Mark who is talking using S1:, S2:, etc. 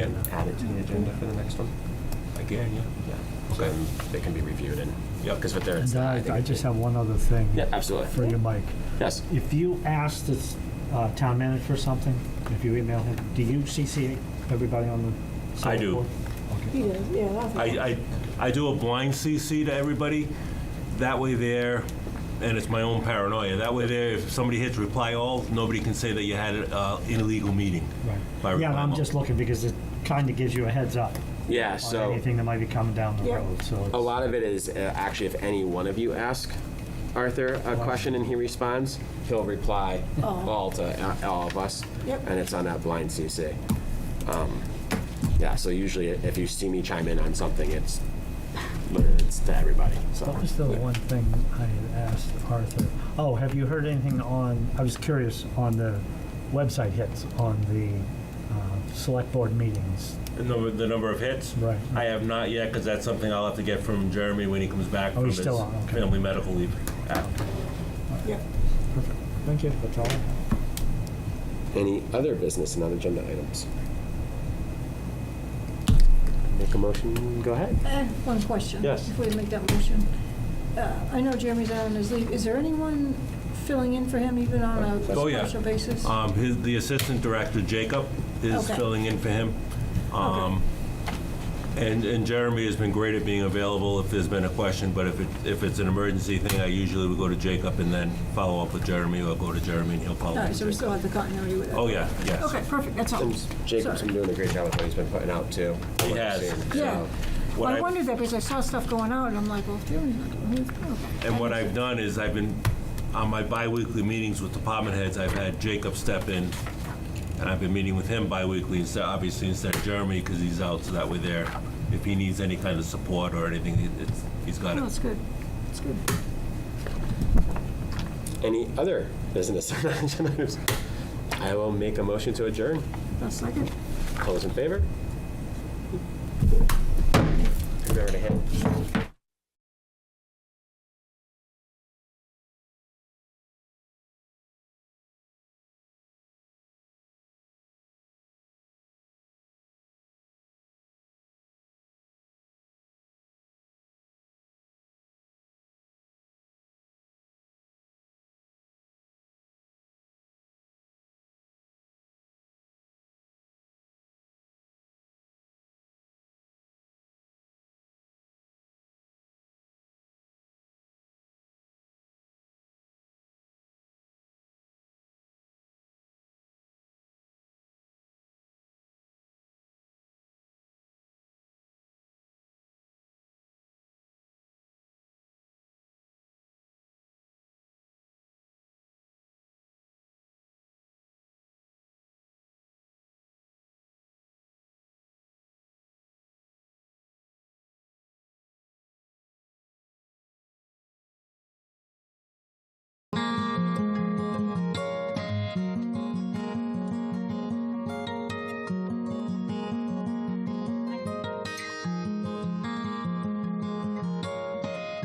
S1: and add it to the agenda for the next one?
S2: Again, yeah.
S1: Yeah. So
S2: Okay.
S1: then they can be reviewed and,
S2: Yep.
S1: because with their.
S3: And I, I just have one other thing
S1: Yeah, absolutely.
S3: for you, Mike.
S1: Yes.
S3: If you ask the uh, town manager for something, if you email him, do you CC everybody on the?
S2: I
S3: select
S2: do.
S3: board?
S4: He does, yeah, that's.
S2: I, I, I do a blind CC to everybody. That way there, and it's my own paranoia, that way there, if somebody hits reply all, nobody can say that you had uh, an illegal meeting. by
S3: Right. Yeah, and
S2: reply
S3: I'm
S2: all.
S3: just looking because it kind of gives you a heads up
S1: Yeah,
S3: on
S1: so
S3: anything that might be coming down the
S4: Yep.
S3: road, so.
S1: a
S3: it's-
S1: lot of it is uh, actually if any one of you ask Arthur a question and he responds, he'll reply all to uh, all of us.
S4: Yep.
S1: And it's on that blind CC. Um, Yeah, so usually if you see me chime in on something, it's, it's to everybody, so.
S3: What was the one thing I had asked Arthur? Oh, have you heard anything on, I was curious, on the website hits on the uh, select board meetings?
S2: The number, the number of hits?
S3: Right.
S2: I have not yet, because that's something I'll have to get from Jeremy when he comes back
S3: Oh,
S2: from
S3: he's
S2: his
S3: still on, okay.
S2: family medical leave. act.
S4: Yeah.
S3: Perfect. Thank you. That's all. I have.
S1: Any other business, non-agenda items? Make a motion, go ahead.
S4: Uh, One question.
S2: Yes.
S4: Before you make that motion. Uh, I know Jeremy's out on his leave. Is there anyone filling in for him even on a
S2: Oh, yeah.
S4: special basis?
S2: Um, his, the assistant director, Jacob, is
S4: Okay.
S2: filling in for him. Um, And, and Jeremy has been great at being available if there's been a question, but if it, if it's an emergency thing, I usually would go to Jacob and then follow up with Jeremy, or go to Jeremy and he'll
S4: All
S2: follow up
S4: right, so we
S2: with Jacob.
S4: still have the continuity with that.
S2: Oh, yeah, yes.
S4: Okay, perfect, that's all.
S1: And Jacob's been
S4: Sorry.
S1: doing a great job with what he's been putting out too. from
S2: He
S1: what I've
S2: has.
S1: seen, so.
S4: Yeah. Well,
S2: What
S4: I
S2: I-
S4: wondered that because I saw stuff going out and I'm like, well, Jeremy's not doing Oh, it. Okay.
S2: And what I've done is I've been, on my bi-weekly meetings with department heads, I've had Jacob step in, and I've been meeting with him bi-weekly instead, obviously instead of Jeremy, because he's out, so that way there, if he needs any kind of support or anything, it- it's, he's got
S4: No,
S2: it.
S4: it's good, it's good.
S1: Any other business, or non-agenda items? I will make a motion to adjourn.
S4: That's second.
S1: All those in favor? Remember to hand-